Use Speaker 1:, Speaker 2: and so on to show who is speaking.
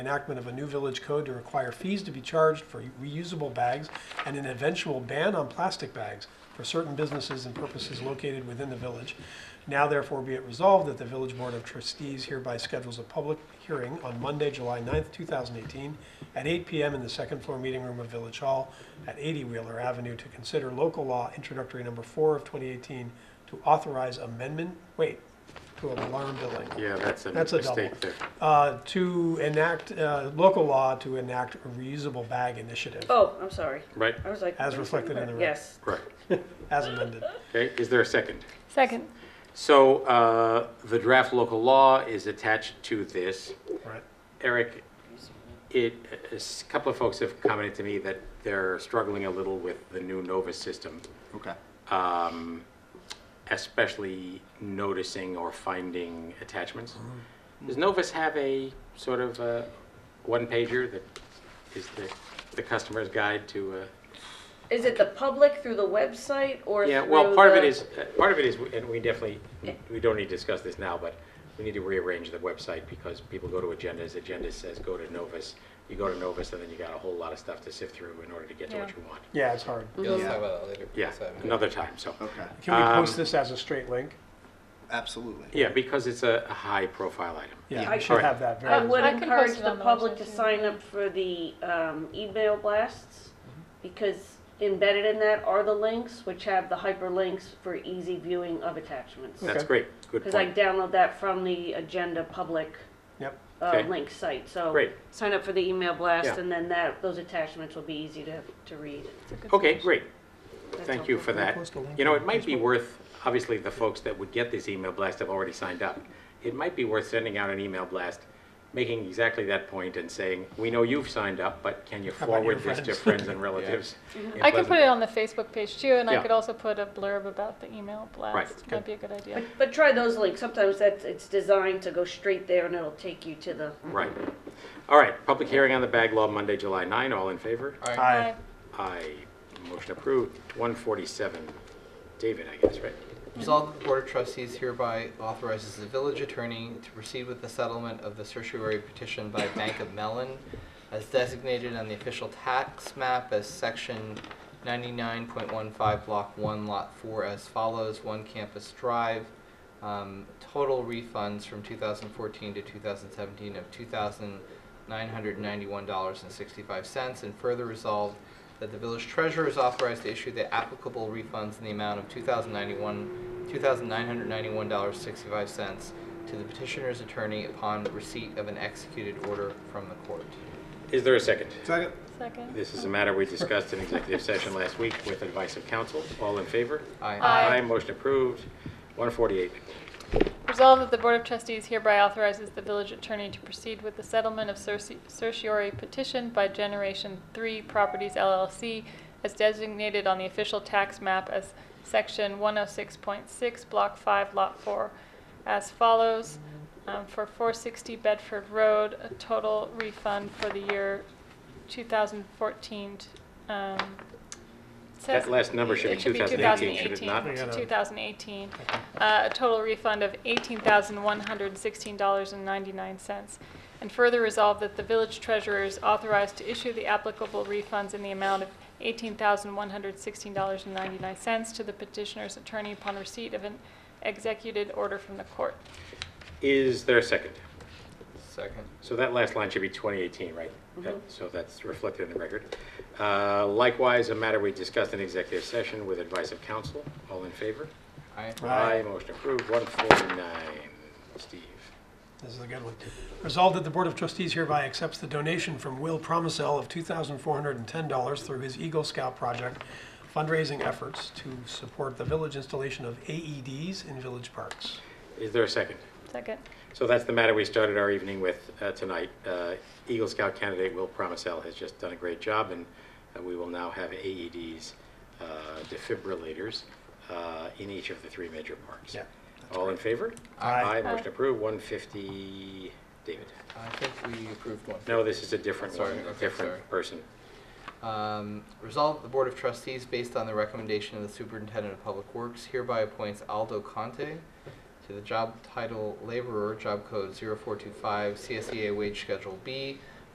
Speaker 1: enactment of a new village code to require fees to be charged for reusable bags and an eventual ban on plastic bags for certain businesses and purposes located within the village. Now therefore be it resolved that the Village Board of Trustees hereby schedules a public hearing on Monday, July 9th, 2018, at 8 PM in the second floor meeting room of Village Hall at 80 Wheeler Avenue to consider local law introductory number four of 2018 to authorize amendment, wait, to alarm billing.
Speaker 2: Yeah, that's a
Speaker 1: That's a double.
Speaker 2: mistake there.
Speaker 1: Uh, to enact, uh, local law to enact a reusable bag initiative
Speaker 3: Oh, I'm sorry.
Speaker 2: Right,
Speaker 3: I was like.
Speaker 1: As reflected in the rec-
Speaker 3: Yes.
Speaker 2: right.
Speaker 1: as amended.
Speaker 2: Okay, is there a second?
Speaker 4: Second.
Speaker 2: So uh, the draft local law is attached to this.
Speaker 1: Right.
Speaker 2: Eric, it, a s- couple of folks have commented to me that they're struggling a little with the new Nova system,
Speaker 5: Okay.
Speaker 2: um, especially noticing or finding attachments. Does Novus have a sort of uh one pager that is the, the customer's guide to? Uh,
Speaker 3: Is it the public through the website or
Speaker 2: Yeah, well,
Speaker 3: through
Speaker 2: part of it
Speaker 3: the-
Speaker 2: is, uh, part of it is, and we definitely, we don't need to discuss this now, but we need to rearrange the website because people go to agendas, agenda says go to Novus. You go to Novus and then you got a whole lot of stuff to sift through in order to get to what
Speaker 3: Yeah.
Speaker 2: you want.
Speaker 1: Yeah, it's hard.
Speaker 6: Yeah, let's
Speaker 5: Yeah.
Speaker 6: talk about that later.
Speaker 2: Yeah,
Speaker 6: So,
Speaker 2: another time, so.
Speaker 5: Okay.
Speaker 1: Can we post
Speaker 2: Um,
Speaker 1: this as a straight link?
Speaker 5: Absolutely.
Speaker 2: Yeah, because it's a a high-profile item.
Speaker 1: Yeah,
Speaker 5: I-
Speaker 1: we should
Speaker 2: Alright.
Speaker 1: have that.
Speaker 3: I
Speaker 1: very-
Speaker 3: would
Speaker 4: I can
Speaker 3: encourage
Speaker 4: post it
Speaker 3: the
Speaker 4: on the
Speaker 3: public
Speaker 4: website,
Speaker 3: to
Speaker 4: too.
Speaker 3: sign up for the um, email blasts
Speaker 1: Mm-hmm.
Speaker 3: because embedded in that are the links which have the hyperlinks for easy viewing of attachments.
Speaker 2: That's
Speaker 1: Okay.
Speaker 2: great, good
Speaker 3: Because I
Speaker 2: point.
Speaker 3: download that from the agenda public
Speaker 1: Yep.
Speaker 3: uh,
Speaker 2: Okay.
Speaker 3: link site. So
Speaker 2: Great.
Speaker 3: sign up for the email blast
Speaker 2: Yeah.
Speaker 3: and then that, those attachments will be easy to, to read.
Speaker 2: Okay, great,
Speaker 3: That's
Speaker 2: thank you
Speaker 3: helpful.
Speaker 2: for that.
Speaker 1: post a link
Speaker 2: You know,
Speaker 1: on
Speaker 2: it might be
Speaker 1: Facebook?
Speaker 2: worth, obviously, the folks that would get this email blast have already signed up. It might be worth sending out an email blast, making exactly that point and saying, we know you've signed up, but can you
Speaker 1: How about your
Speaker 2: forward this to
Speaker 1: friends?"
Speaker 2: friends and relatives? in
Speaker 4: I could put
Speaker 2: Pleasanton?"
Speaker 4: it on the Facebook page too, and
Speaker 2: Yeah.
Speaker 4: I could also put a blurb about the email blast.
Speaker 2: Right,
Speaker 4: That'd be a good idea.
Speaker 3: But, but try those links. Sometimes that's, it's designed to go straight there and it'll take you to the
Speaker 2: Right. All right, public hearing on the bag law, Monday, July 9, all in favor?
Speaker 6: all right.
Speaker 1: Aye.
Speaker 2: Aye. Motion approved. 147, David, I guess, right?
Speaker 6: Resolved that the Board of Trustees hereby authorizes the village attorney to proceed with the settlement of the certiorari petition by Bank of Mellon as designated on the official tax map as section 99.15 block 1 lot 4 as follows one campus drive um, total refunds from 2014 to 2017 of $2,991.65 and further resolved that the village treasurer is authorized to issue the applicable refunds in the amount of two thousand ninety-one, two thousand nine hundred ninety-one dollars sixty-five cents to the petitioner's attorney upon receipt of an executed order from the court.
Speaker 2: Is there a second?
Speaker 5: Second.
Speaker 4: Second.
Speaker 2: This is a matter we discussed in executive session last week with advice of counsel. All in favor?
Speaker 4: Aye.
Speaker 2: Motion approved. 148,
Speaker 4: Resolved that the Board of Trustees hereby authorizes the village attorney to proceed with the settlement of cerci- certiorari petition by Generation 3 Properties LLC as designated on the official tax map as Section 106.6, Block 5, Lot 4, as follows. Um, For 460 Bedford Road, a total refund for the year 2014. um, says-
Speaker 2: That last number should be 2018, should it not?
Speaker 4: to 2018, uh, a total refund of $18,116.99. And further resolve that the village treasurer is authorized to issue the applicable refunds in the amount of $18,116.99 to the petitioner's attorney upon receipt of an executed order from the court.
Speaker 2: is there a second?
Speaker 6: Second.
Speaker 2: So that last line should be 2018, right? That- So that's reflected in the record. Uh, Likewise, a matter we discussed in executive session with advice of counsel. All in favor?
Speaker 6: Aye.
Speaker 1: Aye.
Speaker 2: Motion approved. 149, Steve.
Speaker 1: This is a good one. Resolved that the Board of Trustees hereby accepts the donation from Will Promisel of $2,410 through his Eagle Scout project fundraising efforts to support the village installation of AEDs in village parks.
Speaker 2: Is there a second?
Speaker 4: Second.
Speaker 2: So that's the matter we started our evening with uh, tonight. Uh, Eagle Scout candidate Will Promisel has just done a great job, and uh, we will now have AEDs, uh, defibrillators, uh, in each of the three major parks.
Speaker 1: Yeah,
Speaker 2: All in favor?
Speaker 1: Aye.
Speaker 2: Aye, motion approved. 150, David.
Speaker 6: I think we approved one.
Speaker 2: No, this is a different one,
Speaker 6: Sorry,
Speaker 2: a
Speaker 6: okay, sorry.
Speaker 2: different person.
Speaker 6: Um, resolved that the Board of Trustees, based on the recommendation of the Superintendent of Public Works, hereby appoints Aldo Conte to the job title laborer, job code 0425, CSEA E wage schedule B,